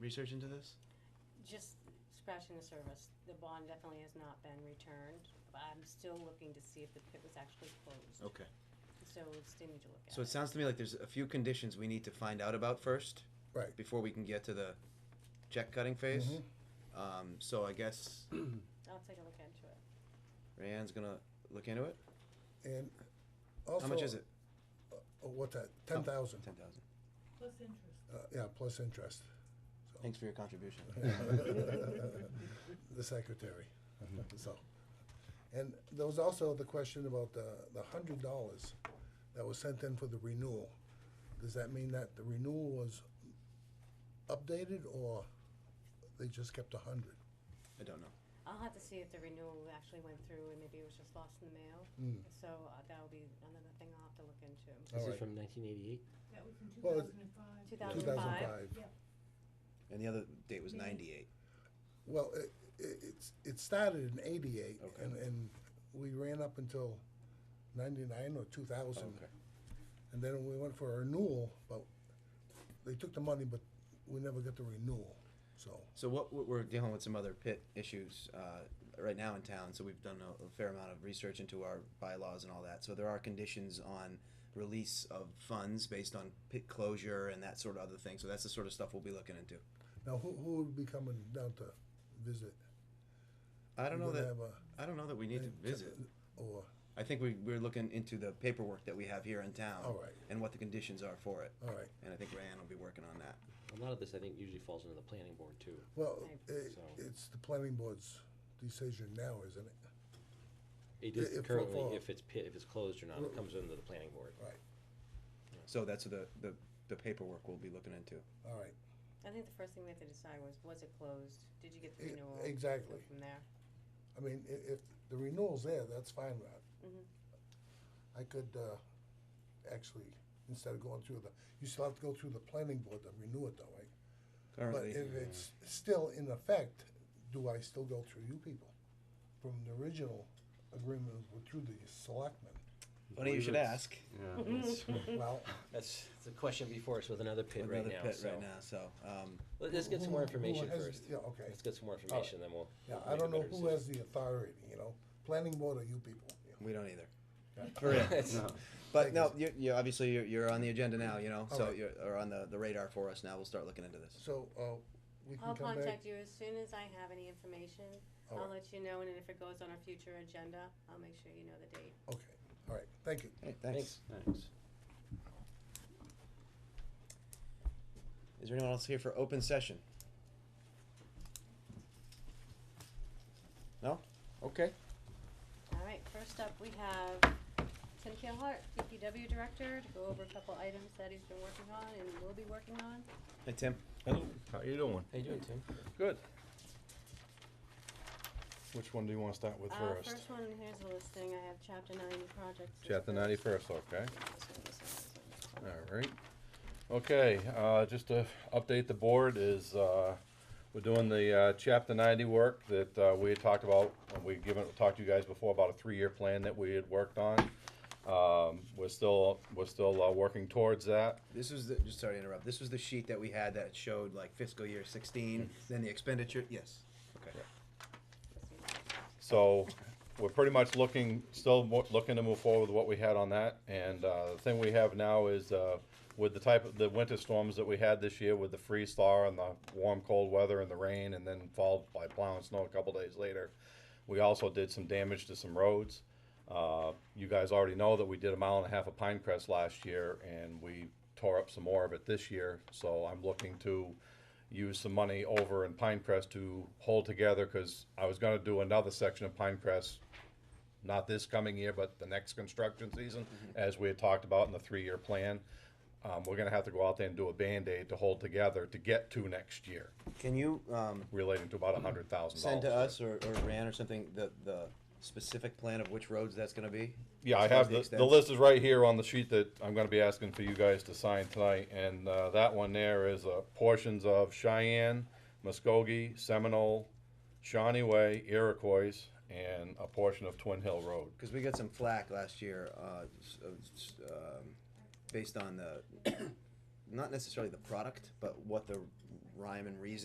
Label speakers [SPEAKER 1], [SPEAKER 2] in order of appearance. [SPEAKER 1] research into this?
[SPEAKER 2] Just scratching the surface, the bond definitely has not been returned, but I'm still looking to see if the pit was actually closed,
[SPEAKER 1] Okay.
[SPEAKER 2] so we still need to look at it.
[SPEAKER 1] So it sounds to me like there's a few conditions we need to find out about first.
[SPEAKER 3] Right.
[SPEAKER 1] Before we can get to the check cutting phase.
[SPEAKER 3] Mhm.
[SPEAKER 1] Um, so I guess
[SPEAKER 2] I'll take a look into it.
[SPEAKER 1] Rayanne's gonna look into it.
[SPEAKER 3] And also.
[SPEAKER 1] How much is it?
[SPEAKER 3] Oh, what's that? Ten thousand.
[SPEAKER 1] Ten thousand.
[SPEAKER 4] Plus interest.
[SPEAKER 3] Uh, yeah, plus interest. So-
[SPEAKER 1] Thanks for your contribution.
[SPEAKER 3] The secretary,
[SPEAKER 1] Mm-hmm.
[SPEAKER 3] so. And there was also the question about the, the hundred dollars that was sent in for the renewal. Does that mean that the renewal was updated or they just kept a hundred?
[SPEAKER 1] I don't know.
[SPEAKER 2] I'll have to see if the renewal actually went through and maybe it was just lost in the mail,
[SPEAKER 1] Hmm.
[SPEAKER 2] so uh, that'll be another thing I'll have to look into.
[SPEAKER 5] This
[SPEAKER 3] Alright.
[SPEAKER 5] is from 1988.
[SPEAKER 4] That was in two
[SPEAKER 3] Well,
[SPEAKER 4] thousand and five.
[SPEAKER 2] Two
[SPEAKER 3] Two
[SPEAKER 2] thousand
[SPEAKER 3] thousand
[SPEAKER 2] five?
[SPEAKER 3] five.
[SPEAKER 1] And the other date was ninety-eight.
[SPEAKER 3] Well, it, it, it's, it started in eighty-eight
[SPEAKER 1] Okay.
[SPEAKER 3] and, and we ran up until ninety-nine or two thousand.
[SPEAKER 1] Okay.
[SPEAKER 3] And then we went for a renewal, but they took the money, but we never got the renewal, so.
[SPEAKER 1] So what what we're dealing with some other pit issues uh, right now in town. So we've done a, a fair amount of research into our bylaws and all that. So there are conditions on release of funds based on pit closure and that sort of other thing. So that's the sort of stuff we'll be looking into.
[SPEAKER 3] Now, who, who would be coming down to visit?
[SPEAKER 1] I don't
[SPEAKER 3] You
[SPEAKER 1] know
[SPEAKER 3] gonna
[SPEAKER 1] that
[SPEAKER 3] have a-
[SPEAKER 1] I don't know that we need to
[SPEAKER 3] a-
[SPEAKER 1] visit.
[SPEAKER 3] Or,
[SPEAKER 1] I think we we're looking into the paperwork that we have here in town
[SPEAKER 3] All right.
[SPEAKER 1] and what the conditions are for it.
[SPEAKER 3] all right,
[SPEAKER 1] And I think Rayanne will be working on that.
[SPEAKER 5] A lot of this, I think, usually falls under the planning board too.
[SPEAKER 3] well,
[SPEAKER 2] Right.
[SPEAKER 3] it,
[SPEAKER 5] So-
[SPEAKER 3] it's the planning board's decision now, isn't it?
[SPEAKER 5] It
[SPEAKER 3] Yeah,
[SPEAKER 5] is
[SPEAKER 3] if-
[SPEAKER 5] currently
[SPEAKER 3] for-
[SPEAKER 5] if it's pit, if it's closed or not, it comes under the planning board.
[SPEAKER 3] Right,
[SPEAKER 1] So that's the the, the paperwork we'll be looking into.
[SPEAKER 3] all right,
[SPEAKER 2] I think the first thing we have to decide was, was it closed? Did you get the
[SPEAKER 3] E-
[SPEAKER 2] renewal?
[SPEAKER 3] exactly.
[SPEAKER 2] Go From there.
[SPEAKER 3] I mean, i- if the renewal's there, that's fine, Rod.
[SPEAKER 2] Mhm. Mm-hmm.
[SPEAKER 3] I could, uh, actually, instead of going through the, you still have to go through the planning board to renew it though, right? But
[SPEAKER 1] Currently,
[SPEAKER 3] if it's still in effect, do I still go through you people? From the original agreement with- through the selectmen?
[SPEAKER 1] funny you should ask.
[SPEAKER 6] Yeah, it's-
[SPEAKER 2] Mm-hmm. Mm.
[SPEAKER 3] Well,
[SPEAKER 5] That's, it's a question before us with another pit right
[SPEAKER 1] Another
[SPEAKER 5] now,
[SPEAKER 1] pit
[SPEAKER 5] so.
[SPEAKER 1] right now. So um,
[SPEAKER 5] Let- Let's get some more
[SPEAKER 3] Who- who
[SPEAKER 5] information
[SPEAKER 3] has-
[SPEAKER 5] first.
[SPEAKER 3] Yeah, okay.
[SPEAKER 5] Let's get some more information, then we'll.
[SPEAKER 3] Yeah,
[SPEAKER 5] we'll
[SPEAKER 3] I
[SPEAKER 5] make a
[SPEAKER 3] don't know
[SPEAKER 5] better
[SPEAKER 3] who has
[SPEAKER 5] decision.
[SPEAKER 3] the authority, you know? Planning board or you people? you know?
[SPEAKER 1] we don't either.
[SPEAKER 3] Yeah.
[SPEAKER 1] For real.
[SPEAKER 5] It's-
[SPEAKER 6] no.
[SPEAKER 1] But
[SPEAKER 3] Thank
[SPEAKER 1] no,
[SPEAKER 3] you.
[SPEAKER 1] you're, you're obviously you're, you're on the agenda now, you know. So
[SPEAKER 3] Alright.
[SPEAKER 1] you're are on the, the radar for us now. We'll start looking into this.
[SPEAKER 3] So, uh, we can
[SPEAKER 2] I'll
[SPEAKER 3] come back?
[SPEAKER 2] contact you as soon as I have any information. I'll
[SPEAKER 3] Alright.
[SPEAKER 2] let you know, and then if it goes on our future agenda, I'll make sure you know the date.
[SPEAKER 3] Okay, all right, thank you.
[SPEAKER 1] Hey, thanks.
[SPEAKER 5] Thanks.
[SPEAKER 6] Thanks.
[SPEAKER 1] Is there anyone else here for open session? No. Okay.
[SPEAKER 2] All right, first up, we have Tim Keelhart, DPW Director, to go over a couple items that he's been working on and will be working on.
[SPEAKER 1] Hey Tim.
[SPEAKER 7] Hello, how you doing?
[SPEAKER 5] How you doing, Tim?
[SPEAKER 7] Good. Which one do you want to start with
[SPEAKER 2] Uh,
[SPEAKER 7] first?
[SPEAKER 2] first one, here's the listing, I have chapter ninety projects. as
[SPEAKER 7] Chapter
[SPEAKER 2] well.
[SPEAKER 7] 90 first, okay.
[SPEAKER 2] This one, this one, this one, this one.
[SPEAKER 7] All right. Okay, uh, just to update the board is, uh, we're doing the, uh, chapter ninety work that, uh, we had talked about, and we've given, talked to you guys before about a three-year plan that we had worked on. Um, we're still, we're still, uh, working towards that.
[SPEAKER 1] This was the, just sorry to interrupt. This was the sheet that we had that showed like fiscal year 16, then the expenditure. Yes. Okay.
[SPEAKER 7] So we're pretty much looking, still mo- looking to move forward with what we had on that. And uh, the thing we have now is uh, with the type of, the winter storms that we had this year with the freeze thaw and the warm, cold weather and the rain and then followed by plowing snow a couple days later. We also did some damage to some roads. Uh, You guys already know that we did a mile and a half of Pinecrest last year and we tore up some more of it this year. So I'm looking to use some money over in Pinecrest to hold together, cause I was gonna do another section of Pinecrest, not this coming year, but the next construction season,
[SPEAKER 1] Mm-hmm.
[SPEAKER 7] as we had talked about in the three-year plan. Um, we're gonna have to go out there and do a Band-Aid to hold together to get to next year,
[SPEAKER 1] Can you um,
[SPEAKER 7] relating to about a hundred thousand
[SPEAKER 1] send
[SPEAKER 7] dollars.
[SPEAKER 1] to us or, or Ran or something the the specific plan of which roads that's going to be?
[SPEAKER 7] Yeah, I
[SPEAKER 1] As far as
[SPEAKER 7] have, the, the
[SPEAKER 1] extents?
[SPEAKER 7] list is right here on the sheet that I'm gonna be asking for you guys to sign tonight, and, uh, that one there is, uh, portions of Cheyenne, Muskogee, Seminole, Shawnee Way, Iroquois, and a portion of Twin Hill Road.
[SPEAKER 1] Because we got some flack last year, uh, s- uh, s- um, based on the, not necessarily the product, but what the rhyme and reason